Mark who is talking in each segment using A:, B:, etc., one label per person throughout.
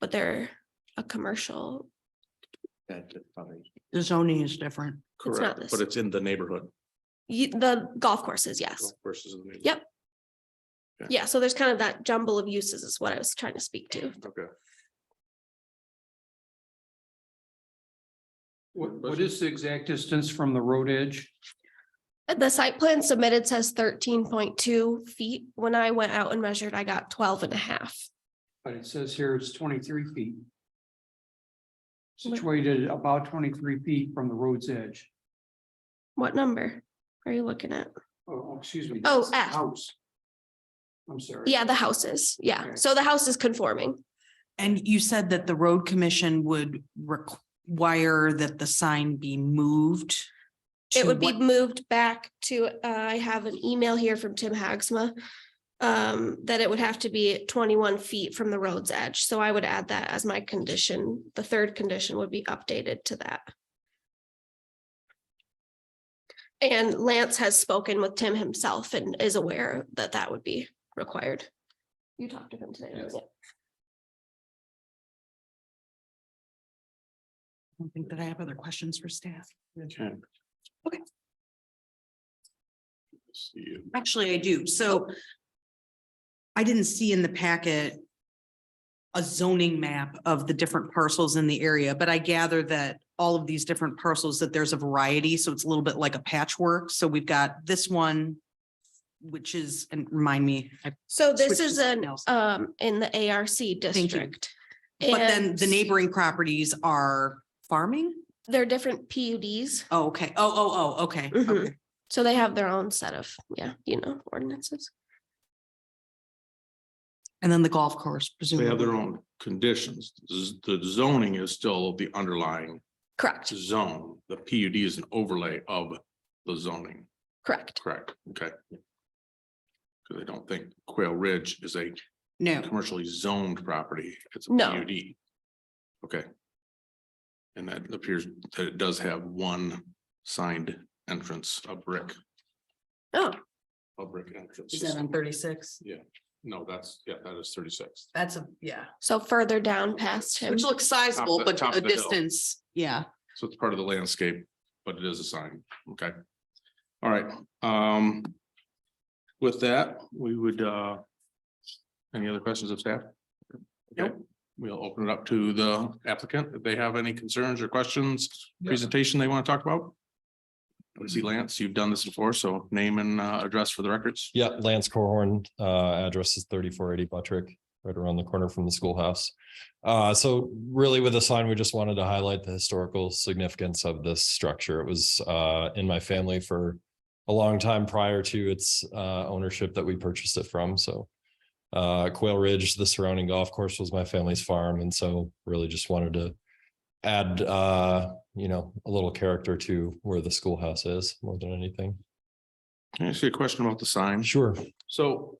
A: but they're a commercial.
B: That is probably-
C: The zoning is different.
A: It's not
D: Correct,
A: this.
D: but it's in the neighborhood
A: Ye- the golf courses, yes.
D: versus. the neighborhood.
A: Yep.
D: Yeah.
A: Yeah, so there's kind of that jumble of uses is what I was trying to speak to.
D: Okay.
E: What, what is the exact distance from the road edge?
A: Uh, The site plan submitted says thirteen point two feet. When I went out and measured, I got 12 and a half.
E: But it says here it's twenty-three feet. Situated about twenty-three feet from the road's edge.
A: What number are you looking at?
E: Oh, oh, excuse me.
A: Oh,
E: that's the
A: F.
E: House. I'm sorry.
A: Yeah, the houses. Yeah,
E: Okay.
A: so the house is conforming.
C: And you said that the road commission would require that the sign be moved.
A: It
C: to
A: would be
C: what-
A: moved back to, uh, I have an email here from Tim Hagsma. Um, that it would have to be twenty-one feet from the road's edge. So I would add that as my condition. The third condition would be updated to that. And Lance has spoken with Tim himself and is aware that that would be required. You talked to him today. right?
C: I don't think that I have other questions for staff.
B: Okay.
D: See you.
C: Actually, I do. So I didn't see in the packet a zoning map of the different parcels in the area, but I gather that all of these different parcels, that there's a variety, so it's a little bit like a patchwork. So we've got this one, which is, and remind me, I-
A: So
C: Switch
A: this
C: to
A: is an,
C: something else.
A: um, in the ARC
C: you.
A: district.
C: but then
A: And
C: the neighboring properties are farming?
A: They're different PUDs,
C: Oh, okay. Oh, oh, oh, okay.
A: Mhm.
C: okay.
A: so they have their own set of, yeah, you know, ordinances.
C: And then the golf course
D: They
C: presumably.
D: have their own conditions. Z- The zoning is still the underlying
A: Correct,
D: zone. The PUD is an overlay of the zoning,
A: correct.
D: correct? Okay. Because I don't think Quail Ridge is a
C: No,
D: commercially zoned property. It's a
A: No.
D: PUD. Okay. And that appears that it does have one signed entrance, a brick,
A: Oh,
D: a brick entrance.
C: is that on thirty-six?
D: No, that's, yeah, that is thirty-six.
C: That's a, yeah,
A: so further down past him.
C: which looks
D: Top of
C: sizable,
D: the-
C: but
D: top
C: a
D: of the hill.
C: distance, yeah.
D: So it's part of the landscape, but it is a sign, okay? All right, um. With that, we would, uh. Any other questions of staff? Okay, we'll open it up to the applicant, if they have any concerns or questions, presentation they want to talk about. I see Lance, you've done this before, so name and uh, address for the records.
F: Yeah, Lance Corhorn, uh, address is thirty-four eighty Buttrick, right around the corner from the schoolhouse. Uh, so really with the sign, we just wanted to highlight the historical significance of this structure. It was, uh, in my family for a long time prior to its, uh, ownership that we purchased it from, so. Uh, Quail Ridge, the surrounding golf course was my family's farm, and so really just wanted to add, uh, you know, a little character to where the schoolhouse is more than anything.
D: Can I ask you a question about the sign?
F: Sure.
D: So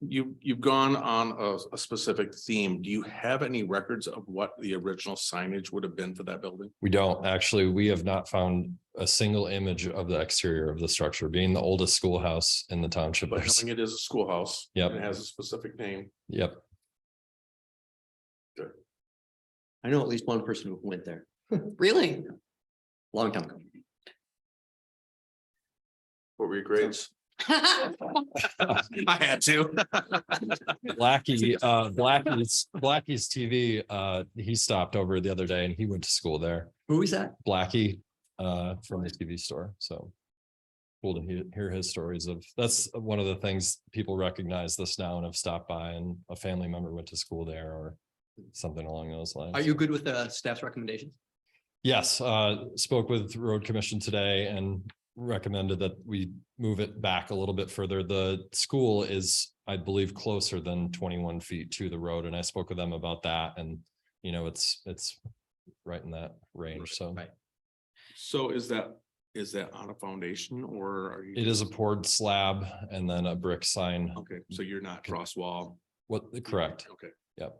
D: you, you've gone on a, a specific theme. Do you have any records of what the original signage would have been for that building?
F: We don't, actually, we have not found a single image of the exterior of the structure, being the oldest schoolhouse in the township.
D: But
F: there's-
D: knowing it is a schoolhouse.
F: Yep.
D: and It has a specific name.
F: Yep,
B: I know at least one person who went there,
C: Really?
B: long time ago.
D: What were your grades? I had to.
F: Blackie, uh, Blackie's, Blackie's TV, uh, he stopped over the other day and he went to school there.
B: Who is that?
F: Blackie, uh, from the TV store, so. Cool to hear, hear his stories of, that's one of the things people recognize this now and have stopped by and a family member went to school there or something along those lines.
G: Are you good with
B: uh,
G: the staff's recommendations?
F: Yes, uh, spoke with road commission today and recommended that we move it back a little bit further. The school is, I believe, closer than twenty-one feet to the road, and I spoke with them about that, and you know, it's, it's right in that range, so
G: Right.
D: So is that, is that on a foundation or are you?
F: it is a poured slab and then a brick sign.
D: Okay, so you're not cross wall.
F: What, correct,
D: Okay.
F: Yep.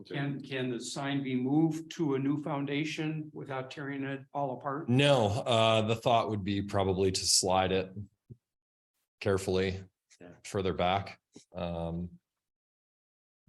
D: Okay.
E: Can, can the sign be moved to a new foundation without tearing it all apart?
F: no, uh, the thought would be probably to slide it carefully
B: Yeah.
F: further back. Um,